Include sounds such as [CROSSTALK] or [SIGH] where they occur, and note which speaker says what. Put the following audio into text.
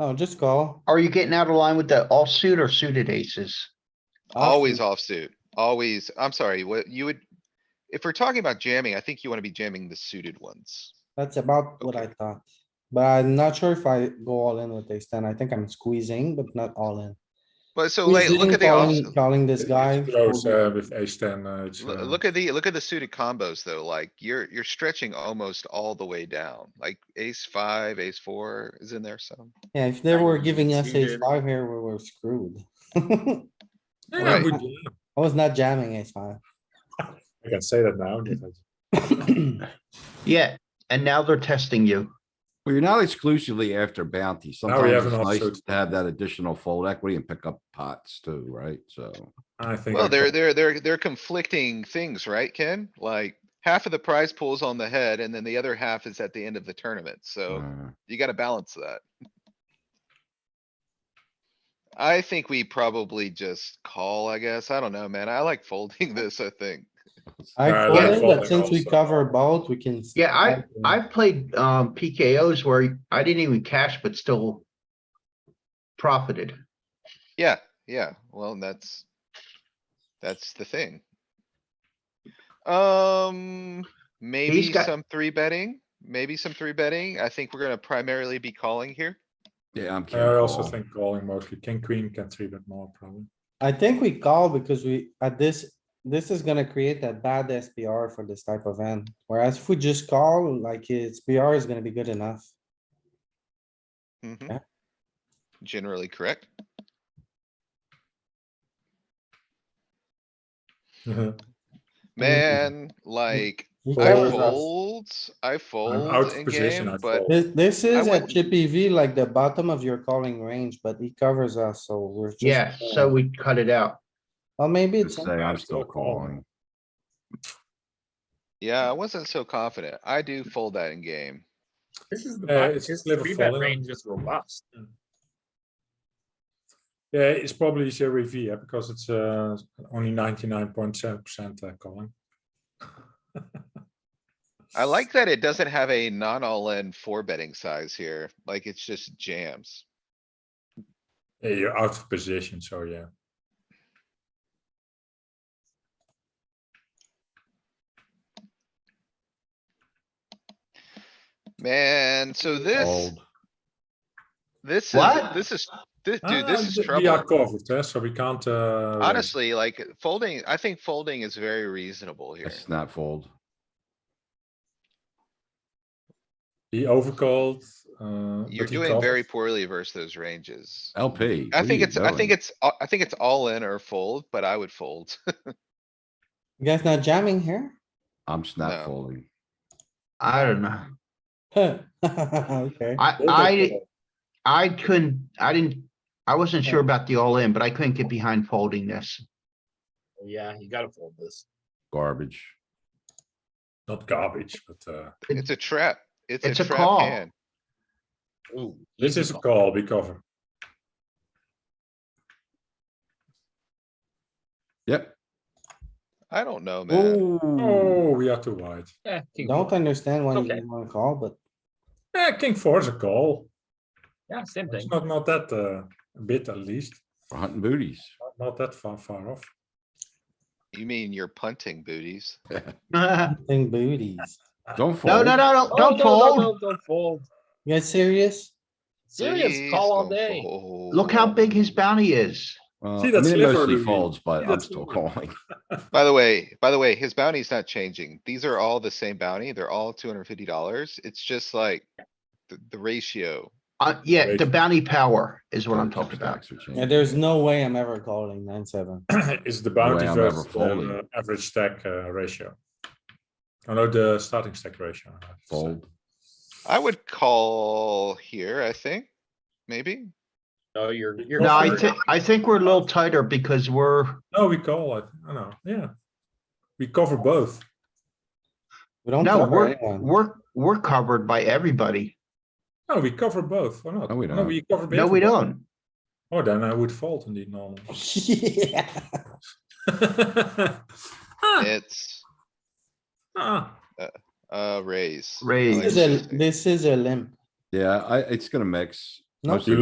Speaker 1: Oh, just call.
Speaker 2: Are you getting out of line with the offsuit or suited aces?
Speaker 3: Always offsuit, always. I'm sorry, what you would, if we're talking about jamming, I think you wanna be jamming the suited ones.
Speaker 1: That's about what I thought, but I'm not sure if I go all in with ace ten. I think I'm squeezing, but not all in.
Speaker 3: But so like, look
Speaker 1: Squeezing,
Speaker 3: at the
Speaker 1: calling-
Speaker 3: offsuit-
Speaker 1: Calling this
Speaker 4: It's
Speaker 1: guy.
Speaker 4: Close, uh, with ace ten, uh, it's,
Speaker 3: Lo-
Speaker 4: uh,
Speaker 3: Look at the, look at the suited combos though, like you're, you're stretching almost all the way down, like ace five, ace four is in there some.
Speaker 1: Yeah, if they were giving us ace
Speaker 4: Suited.
Speaker 1: five here, we were screwed.
Speaker 4: yeah,
Speaker 3: Right.
Speaker 4: good jam.
Speaker 1: I was not jamming ace five.
Speaker 4: I can say that now. didn't
Speaker 2: Yeah, and now they're testing you.
Speaker 5: Well, you're not exclusively after bounty.
Speaker 4: we
Speaker 5: Sometimes
Speaker 4: have
Speaker 5: it's
Speaker 4: an
Speaker 5: nice
Speaker 4: offsuit.
Speaker 5: to have that additional fold equity and pick up pots too, right? So.
Speaker 4: I I think. I
Speaker 3: Well, they're,
Speaker 4: can-
Speaker 3: they're, they're, they're conflicting things, right, Ken? Like half of the prize pool's on the head and then the other half is at the end of the tournament, so.
Speaker 5: uh,
Speaker 3: You gotta balance that. I think we probably just call, I guess. I don't know, man. I like folding [LAUGHS] this, I think.
Speaker 1: I
Speaker 4: Uh,
Speaker 1: fold
Speaker 2: yeah,
Speaker 1: it, but
Speaker 4: folding
Speaker 1: since we
Speaker 4: also.
Speaker 1: cover both, we can.
Speaker 2: Yeah, I, I've played, um, PKOs where I didn't even cash, but still profited.
Speaker 3: Yeah, yeah, well, that's. That's the thing. Um, maybe
Speaker 2: got-
Speaker 3: some three betting, maybe some three betting. I think we're gonna primarily be calling here.
Speaker 5: Yeah, I'm.
Speaker 4: I also
Speaker 5: careful.
Speaker 4: think calling mostly king, queen, can three bet more probably.
Speaker 1: I think we call because we, at this, this is gonna create that bad SPR for this type of end. Whereas if we just call, like, it's PR is gonna be good enough.
Speaker 3: Mhm.
Speaker 1: Yeah.
Speaker 3: Mm-hmm. Generally correct.
Speaker 1: Uh-huh.
Speaker 3: Man, like,
Speaker 1: You
Speaker 3: I
Speaker 1: call it.
Speaker 3: fold, I
Speaker 4: I'm
Speaker 3: fold
Speaker 4: out of
Speaker 3: in
Speaker 4: position,
Speaker 3: game,
Speaker 4: I
Speaker 3: but
Speaker 4: fold.
Speaker 1: This, this is a
Speaker 3: wouldn't-
Speaker 1: chippy V, like the bottom of your calling range, but he covers us, so we're. just-
Speaker 2: Yeah, so we cut it out.
Speaker 1: Well, maybe
Speaker 5: Just
Speaker 1: it's,
Speaker 5: Say, I'm still
Speaker 4: still calling.
Speaker 5: calling.
Speaker 3: yeah, I wasn't so confident. I do fold that in game.
Speaker 6: This is the
Speaker 4: Uh,
Speaker 6: back,
Speaker 4: it's
Speaker 6: his
Speaker 4: never
Speaker 6: three bet
Speaker 4: fallen.
Speaker 6: range is robust.
Speaker 4: Yeah, it's probably zero EV, yeah, because it's, uh, only ninety-nine point seven percent, uh, calling.
Speaker 3: I like that it doesn't have a non all in four betting size here, like it's just jams.
Speaker 4: [LAUGHS] Yeah, You're out of position, so yeah.
Speaker 3: Man, so this,
Speaker 5: Fold.
Speaker 3: this is,
Speaker 2: What?
Speaker 3: this is, this,
Speaker 4: Ah,
Speaker 3: dude, this is
Speaker 4: th- We are
Speaker 3: trouble.
Speaker 4: covered, eh, so we can't, uh. raise.
Speaker 3: Honestly, like folding, I think folding is very reasonable here.
Speaker 5: It's not fold.
Speaker 4: He overcalled, uh.
Speaker 3: You're
Speaker 4: but he
Speaker 3: doing
Speaker 4: covered.
Speaker 3: very poorly versus those ranges.
Speaker 5: LP.
Speaker 3: I think it's, I think it's, a- I think it's all in or fold, but I would fold. [LAUGHS]
Speaker 1: you guys not jamming here? [LAUGHS]
Speaker 5: I'm just not
Speaker 3: No.
Speaker 5: folding.
Speaker 2: I don't know.
Speaker 1: Okay,
Speaker 2: I, I, I couldn't, I didn't, I wasn't sure about the all-in, but I couldn't get behind folding this. [LAUGHS]
Speaker 6: Yeah, you gotta fold this.
Speaker 5: Garbage.
Speaker 4: Not garbage, but, uh,
Speaker 3: It's a trap. It's
Speaker 2: It's
Speaker 3: a
Speaker 2: a
Speaker 3: trap
Speaker 2: call.
Speaker 3: hand.
Speaker 6: Ooh,
Speaker 4: this
Speaker 6: easy
Speaker 4: is a
Speaker 6: call.
Speaker 4: call, we cover.
Speaker 5: Yep.
Speaker 3: I don't know, man.
Speaker 5: Ooh.
Speaker 4: Oh, we are too wide.
Speaker 6: Yeah, king
Speaker 1: don't
Speaker 6: four.
Speaker 1: understand why you
Speaker 6: Okay.
Speaker 1: didn't wanna call, but
Speaker 4: Yeah, king four is a call.
Speaker 6: Yeah, same
Speaker 4: It's
Speaker 6: thing.
Speaker 4: not, not that, uh, bit at least,
Speaker 5: We're hunting booties.
Speaker 4: Not- not that far, far off. [COUGHS]
Speaker 3: You mean you're punting booties?
Speaker 2: No,
Speaker 1: I think booties.
Speaker 5: Don't
Speaker 2: no,
Speaker 5: fold.
Speaker 2: no, no,
Speaker 6: Oh,
Speaker 2: don't
Speaker 6: no, no,
Speaker 2: fold.
Speaker 6: no, Don't fold.
Speaker 1: You guys serious?
Speaker 6: Serious,
Speaker 3: Please
Speaker 6: call all
Speaker 3: don't
Speaker 6: day.
Speaker 3: fold.
Speaker 2: Look how big his bounty is.
Speaker 5: Well,
Speaker 4: See
Speaker 5: I
Speaker 4: that
Speaker 5: mean, it
Speaker 4: sliver,
Speaker 5: mostly
Speaker 4: Louis?
Speaker 5: folds,
Speaker 4: See
Speaker 5: but
Speaker 4: that
Speaker 5: I'm still
Speaker 4: sliver?
Speaker 5: calling.
Speaker 3: By the way, by the way, his bounty's not changing. These are all the same bounty. They're all two hundred and fifty dollars. It's just like the, the ratio.
Speaker 2: Uh, yeah, the
Speaker 4: Right.
Speaker 2: bounty power is what
Speaker 5: [LAUGHS]
Speaker 2: I'm
Speaker 5: Top
Speaker 2: talking about.
Speaker 5: stacks are
Speaker 1: Yeah,
Speaker 5: changing.
Speaker 1: there's no way I'm ever calling nine, seven.
Speaker 4: Is the bounty
Speaker 5: I'm ever
Speaker 4: versus
Speaker 5: folding.
Speaker 4: the uh, average stack, uh, ratio. Oh no, the starting stack ratio. I have to say.
Speaker 5: Fold.
Speaker 3: I would call here, I think, maybe.
Speaker 6: No, you're, you're.
Speaker 2: No, I
Speaker 4: Offer.
Speaker 2: think, I think we're a little tighter because we're,
Speaker 4: No, we call it, I know, yeah. We cover both.
Speaker 1: We don't
Speaker 2: no,
Speaker 1: cover
Speaker 2: we're,
Speaker 1: anyone.
Speaker 2: we're, we're covered by everybody.
Speaker 4: No, we cover both, or not?
Speaker 5: No, we
Speaker 4: No,
Speaker 5: don't.
Speaker 4: we cover.
Speaker 2: No, we
Speaker 4: both.
Speaker 2: don't.
Speaker 4: Oh, then I would fold indeed normal.
Speaker 1: [LAUGHS] Yeah.
Speaker 4: Ah,
Speaker 3: It's
Speaker 4: [LAUGHS] ah.
Speaker 3: uh raise. I like
Speaker 2: Raise.
Speaker 1: This is a,
Speaker 3: raising.
Speaker 1: this is a limp.
Speaker 5: Yeah, I, it's gonna mix.
Speaker 1: No.
Speaker 5: Mostly